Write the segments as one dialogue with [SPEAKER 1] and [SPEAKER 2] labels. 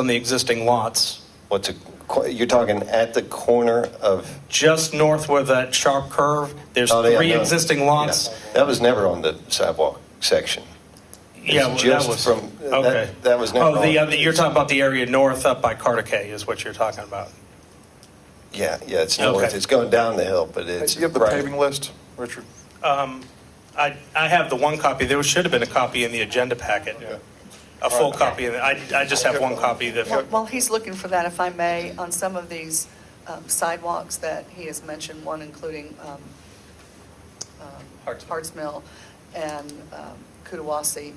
[SPEAKER 1] on the existing lots,
[SPEAKER 2] What's a, qu- you're talking at the corner of?
[SPEAKER 1] just north where that sharp curve, there's
[SPEAKER 2] Oh, yeah,
[SPEAKER 1] three
[SPEAKER 2] no.
[SPEAKER 1] existing lots.
[SPEAKER 2] Yeah. That was never on the sidewalk section.
[SPEAKER 1] Yeah, well,
[SPEAKER 2] It's
[SPEAKER 1] that
[SPEAKER 2] just
[SPEAKER 1] was,
[SPEAKER 2] from- that-
[SPEAKER 1] okay.
[SPEAKER 2] that was never
[SPEAKER 1] Oh, the,
[SPEAKER 2] on.
[SPEAKER 1] other- you're talking about the area north up by Carter K is what you're talking about.
[SPEAKER 2] Yeah, yeah, it's
[SPEAKER 1] Okay.
[SPEAKER 2] north, it's going down the hill, but it's.
[SPEAKER 3] You have the
[SPEAKER 2] right.
[SPEAKER 3] paving list, Richard?
[SPEAKER 1] I, I have the one copy, there should have been a copy in the agenda packet, a full copy, in it. I, I just have one copy
[SPEAKER 4] While
[SPEAKER 1] that,
[SPEAKER 4] while he's looking for that, if I may, on some of these um, sidewalks that he has mentioned, one including um, um,
[SPEAKER 1] Harts-
[SPEAKER 4] Harts Mill and um, Kudawasi,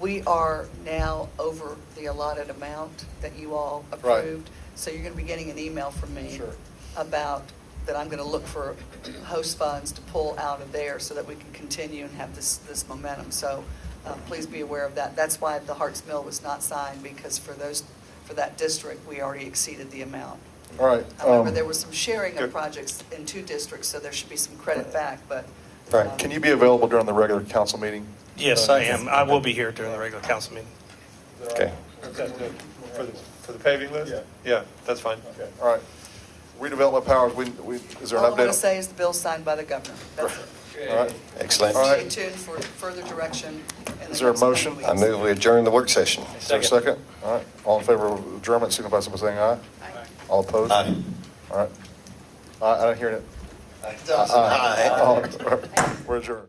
[SPEAKER 4] we are now over the allotted amount that you all
[SPEAKER 3] Right.
[SPEAKER 4] approved. So you're going to be getting an email from me
[SPEAKER 3] Sure.
[SPEAKER 4] about, that I'm going to look for host funds to pull out of there so that we can continue and have this, this momentum. So uh, please be aware of that. That's why the Harts Mill was not signed, because for those, for that district, we already exceeded the amount.
[SPEAKER 3] All right.
[SPEAKER 4] However,
[SPEAKER 3] um,
[SPEAKER 4] there was some sharing
[SPEAKER 3] good.
[SPEAKER 4] of projects in two districts, so there should be some credit back, but.
[SPEAKER 2] Right.
[SPEAKER 4] um,
[SPEAKER 3] Can you be available during the regular council meeting?
[SPEAKER 1] yes,
[SPEAKER 3] Uh,
[SPEAKER 1] I am, I will be here during the regular council meeting.
[SPEAKER 2] Okay.
[SPEAKER 5] For the, for the paving list?
[SPEAKER 3] Yeah.
[SPEAKER 5] Yeah, that's fine.
[SPEAKER 3] All right. Redevelopment powers, we, we, is there
[SPEAKER 4] All
[SPEAKER 3] an update?
[SPEAKER 4] I'm going to say is the bill signed by the governor. That's it.
[SPEAKER 3] All right.
[SPEAKER 2] Excellent.
[SPEAKER 3] All
[SPEAKER 4] Stay
[SPEAKER 3] right.
[SPEAKER 4] tuned for further direction. in the
[SPEAKER 3] Is there a
[SPEAKER 4] next coming
[SPEAKER 3] motion?
[SPEAKER 2] I
[SPEAKER 4] weeks.
[SPEAKER 2] move we adjourn the work session.
[SPEAKER 3] Is there a second? All right. All in favor of adjournment, signify by saying aye.
[SPEAKER 4] Aye.
[SPEAKER 3] All opposed?
[SPEAKER 2] Aye.
[SPEAKER 3] All right. I, I don't hear it.
[SPEAKER 2] Aye.
[SPEAKER 3] Uh, oh, All right. We're adjourned.